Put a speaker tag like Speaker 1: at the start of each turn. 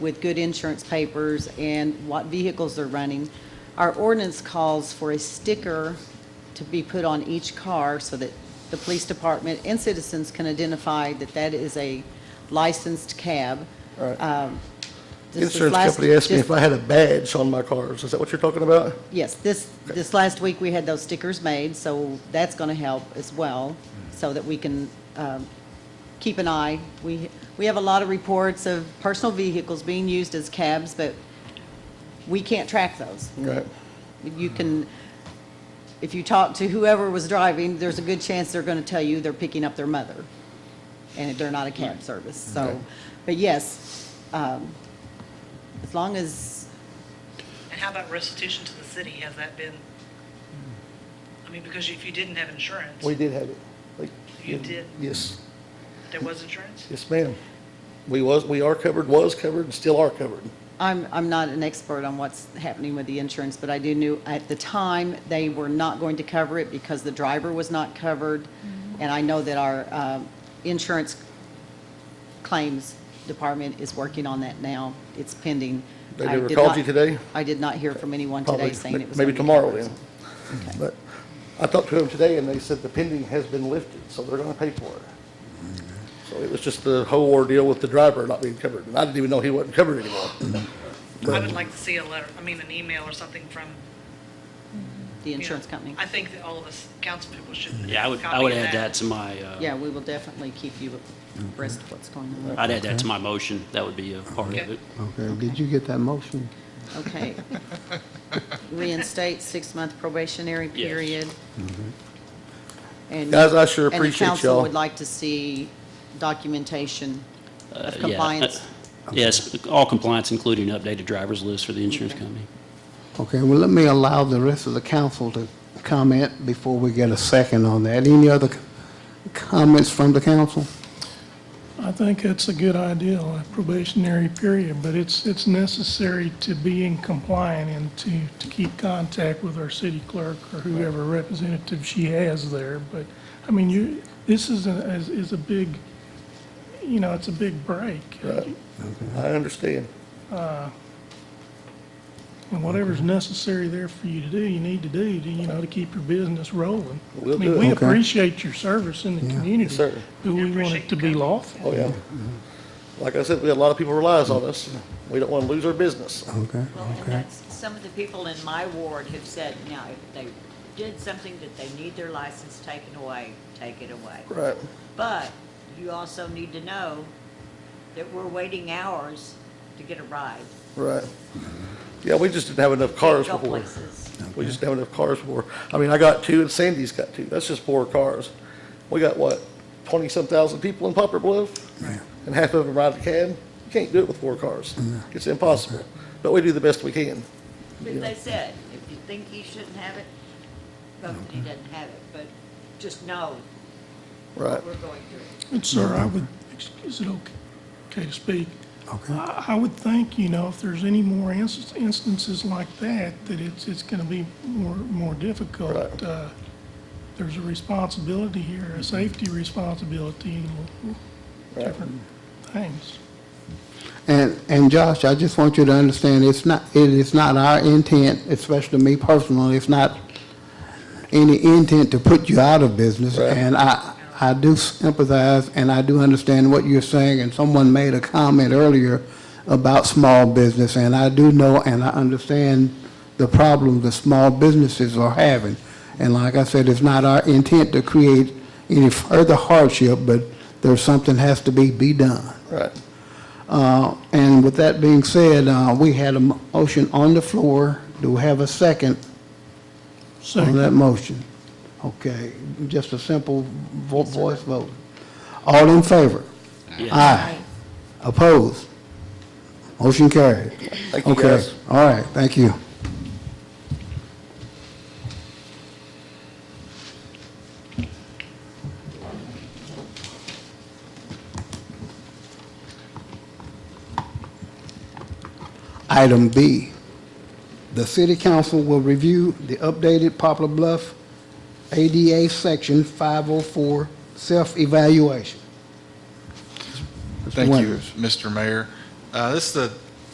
Speaker 1: with good insurance papers and what vehicles they're running. Our ordinance calls for a sticker to be put on each car so that the police department and citizens can identify that that is a licensed cab.
Speaker 2: Right.
Speaker 1: Um, this is
Speaker 2: Insurance
Speaker 1: last-
Speaker 2: company asked me
Speaker 1: just-
Speaker 2: if I had a badge on my cars. Is that what you're talking about?
Speaker 1: Yes, this, this last week, we had those stickers made, so that's going to help as well, so that we can um, keep an eye. We, we have a lot of reports of personal vehicles being used as cabs, but we can't track those.
Speaker 2: Right.
Speaker 1: You can, if you talk to whoever was driving, there's a good chance they're going to tell you they're picking up their mother, and they're not a cab service,
Speaker 2: Okay.
Speaker 1: so. But yes, um, as long as,
Speaker 3: And how about restitution to the city? Has that been, I mean, because if you didn't have insurance,
Speaker 2: We did have it. Like,
Speaker 3: You did?
Speaker 2: Yes,
Speaker 3: there was insurance?
Speaker 2: yes, ma'am. We was, we are covered, was covered, and still are covered.
Speaker 1: I'm, I'm not an expert on what's happening with the insurance, but I do knew, at the time, they were not going to cover it because the driver was not covered. And I know that our um, insurance claims department is working on that now. It's pending.
Speaker 2: They
Speaker 1: I
Speaker 2: never
Speaker 1: did
Speaker 2: called
Speaker 1: not-
Speaker 2: you today?
Speaker 1: I did not hear from anyone
Speaker 2: Probably
Speaker 1: today saying it was.
Speaker 2: Maybe
Speaker 1: gonna be
Speaker 2: tomorrow
Speaker 1: covered.
Speaker 2: then. But I talked to them today, and they said the pending has been lifted, so they're gonna pay for it. Mm-hmm. So it was just the whole ordeal with the driver not being covered, and I didn't even know he wasn't covered anymore.
Speaker 3: I would like to see a letter, I mean, an email or something from.
Speaker 1: The
Speaker 3: you know,
Speaker 1: insurance company.
Speaker 3: I think that all of us council people should.
Speaker 4: Yeah, I would, I
Speaker 3: copy
Speaker 4: would add that to my, uh,
Speaker 1: Yeah, we will definitely keep you abreast of what's going on.
Speaker 4: I'd add that to my motion. That would be a part of
Speaker 3: Okay.
Speaker 4: it. Uh,
Speaker 5: Okay, did you get that motion?
Speaker 1: Okay. Reinstate six-month probationary
Speaker 4: Yes.
Speaker 1: period. And-
Speaker 2: Mm-hmm. Guys, I sure
Speaker 1: And
Speaker 2: appreciate
Speaker 1: the council
Speaker 2: y'all.
Speaker 1: would like to see documentation
Speaker 4: Uh,
Speaker 1: of
Speaker 4: yeah. Uh,
Speaker 1: compliance.
Speaker 4: Yes, all compliance, including updated driver's list for the insurance
Speaker 1: Okay.
Speaker 4: company.
Speaker 5: Okay, well, let me allow the rest of the council to comment before we get a second on that. Any other c- comments from the council?
Speaker 6: I think that's a good idea, a probationary period, but it's, it's necessary to be in compliant and to, to keep contact with our city clerk or whoever representative she has there. But, I mean, you, this is a, is- is a big, you know, it's a big break.
Speaker 2: I understand.
Speaker 6: And whatever's necessary there for you to do, you need to do, to, you know, to keep your business rolling.
Speaker 2: We'll
Speaker 6: I mean,
Speaker 2: do it.
Speaker 6: we
Speaker 5: Okay.
Speaker 6: appreciate your service in the community.
Speaker 2: Yes, sir.
Speaker 6: But we want it to be lawful.
Speaker 2: Oh, yeah. Like I said, we had a lot of people relies on us. We don't want to lose our business.
Speaker 5: Okay,
Speaker 7: Well, and
Speaker 5: okay.
Speaker 7: that's, some of the people in my ward have said, now, if they did something that they need their license taken away, take it away.
Speaker 2: Right.
Speaker 7: But you also need to know that we're waiting hours to get a ride.
Speaker 2: Right. Yeah, we just didn't have enough cars
Speaker 7: Go
Speaker 2: before.
Speaker 7: places.
Speaker 2: We just didn't have enough cars before. I mean, I got two and Sandy's got two. That's just four cars. We got what, twenty-some thousand people in Poplar Bluff? And half of them ride the cab? You can't do it with four cars. It's impossible. But we do the best we can.
Speaker 7: But they said, if you think he shouldn't have it, vote that he doesn't have it, but just know
Speaker 2: Right.
Speaker 7: what we're going through.
Speaker 6: And sir, I would, is it okay, okay to speak?
Speaker 5: Okay.
Speaker 6: I, I would think, you know, if there's any more inst- instances like that, that it's, it's gonna be more, more difficult.
Speaker 2: Right.
Speaker 6: Uh, There's a responsibility here, a safety responsibility, and w-
Speaker 2: Right.
Speaker 6: different things.
Speaker 5: And, and Josh, I just want you to understand, it's not, it is not our intent, especially me personally, it's not any intent to put you out of business.
Speaker 2: Right.
Speaker 5: And I, I do sympathize and I do understand what you're saying. And someone made a comment earlier about small business. And I do know and I understand the problem the small businesses are having. And like I said, it's not our intent to create any further hardship, but there's something has to be, be done.
Speaker 2: Right.
Speaker 5: Uh, And with that being said, uh, we had a motion on the floor. Do we have a second on
Speaker 6: So,
Speaker 5: that motion? Okay, just a simple vo- voice vote. All in favor?
Speaker 4: Yeah.
Speaker 5: Aye. Opposed? Motion carried.
Speaker 2: Thank you,
Speaker 5: Okay.
Speaker 2: guys.
Speaker 5: All right, thank you. Item B, the city council will review the updated Poplar Bluff ADA Section 504 self-evaluation. Mr.
Speaker 8: Thank you,
Speaker 5: Winters.
Speaker 8: Mr. Mayor. Uh, This is the